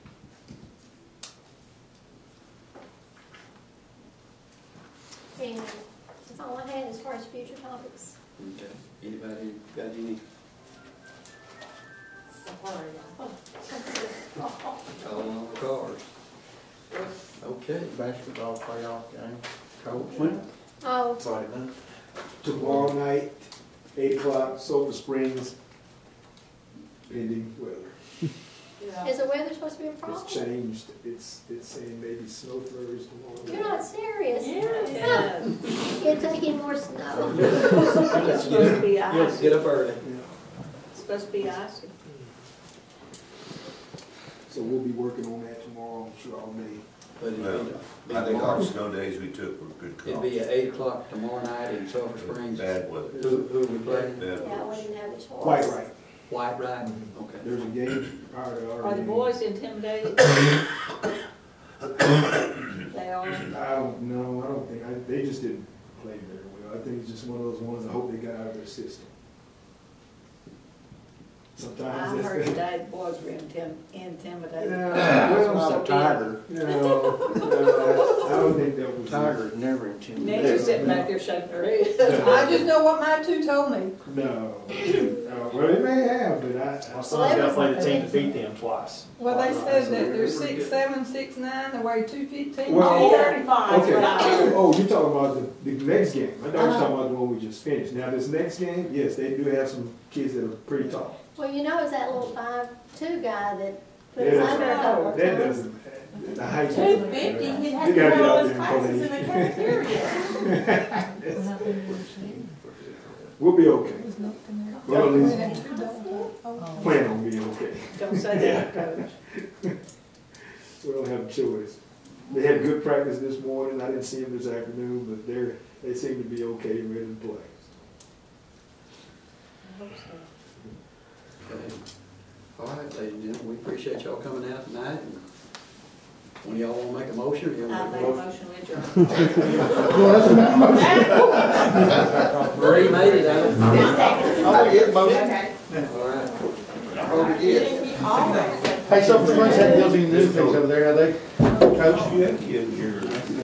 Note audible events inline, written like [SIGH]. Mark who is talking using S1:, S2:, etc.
S1: seeing, that's all I had as far as future topics.
S2: Okay, anybody got any? Calling all the cars. Okay.
S3: basketball playoff game, coach.
S4: When?
S1: Oh,
S3: Friday night.
S4: Tomorrow night, eight o'clock, Silver Springs. Pending weather.
S1: is the weather supposed to be a
S4: It's
S1: problem?
S4: changed. It's, it's saying maybe snow flurries tomorrow.
S1: You're not serious.
S5: Yeah.
S1: You're taking more snow.
S5: It's supposed to be
S2: Yes,
S5: icy,
S2: get up early.
S4: Yeah.
S5: It's supposed to be icy.
S4: So we'll be working on that tomorrow, I'm sure all day.
S2: But
S6: Well,
S2: it'd be,
S6: I think all the
S2: it'd
S6: snow days we took were good
S2: be
S6: calls.
S2: at eight o'clock tomorrow night in Sulphur Springs.
S6: Bad weather,
S2: Who, who we playing?
S6: bad
S1: Yeah, we
S6: weather.
S1: didn't have a choice.
S4: Quite right.
S2: White Riding, okay.
S4: There's a game prior to our.
S5: Are the
S4: game.
S5: boys intimidated? They are.
S4: I don't know, I don't think, I, they just didn't play very well. I think it's just one of those ones, I hope they got out of their system.
S5: I
S4: Sometimes
S5: heard
S4: that's.
S5: today the boys were intim- intimidated.
S3: [LAUGHS]
S4: Yeah, well,
S3: It's not a tiger.
S4: No, no, I don't think that was.
S3: Tiger is never
S5: Nancy's
S3: intimidated.
S5: sitting back there shaking her head. I just know what my two told me.
S4: No, no, well, it may have, but I,
S7: My
S4: I-
S7: son's got to play the team to beat them twice.
S8: Well, they said that they're
S2: Pretty
S8: six,
S2: good.
S8: seven, six, nine, they weigh two fifteen.
S4: Well-
S5: Thirty-five.
S4: okay, oh, you're talking about the, the next game, I thought you
S8: Uh-huh.
S4: were talking about the one we just finished. Now, this next game, yes, they do have some kids that are pretty tall.
S1: Well, you know, it's that little five-two guy that put
S4: That
S1: us under a couple of
S4: doesn't, that
S1: times.
S4: doesn't, the height.
S8: Two
S4: doesn't
S8: fifty,
S4: matter.
S8: he
S4: You
S8: had to
S4: gotta
S8: run
S4: get out
S8: all his
S4: there and play.
S8: classes in the cafeteria.
S4: We'll be okay. Well, at least
S8: Oh.
S4: plan on being okay.
S5: Don't say that, coach.
S4: We don't have a choice. They had good practice this morning. I didn't see them this afternoon, but they're, they seem to be okay, and ready to play.
S2: Okay. All right, ladies and gentlemen, we appreciate y'all coming out tonight. and When y'all wanna make a motion, y'all
S5: I
S2: Uh, make a
S5: made a
S2: motion.
S5: motion to adjourn.
S2: Marie made it, I don't.
S4: Oh,
S6: I get
S8: Okay.
S2: All right.
S6: Oh,
S8: He always said that.
S3: Hey, Silver Springs had building newspaper over there, are they? Coach,
S6: You had kid here.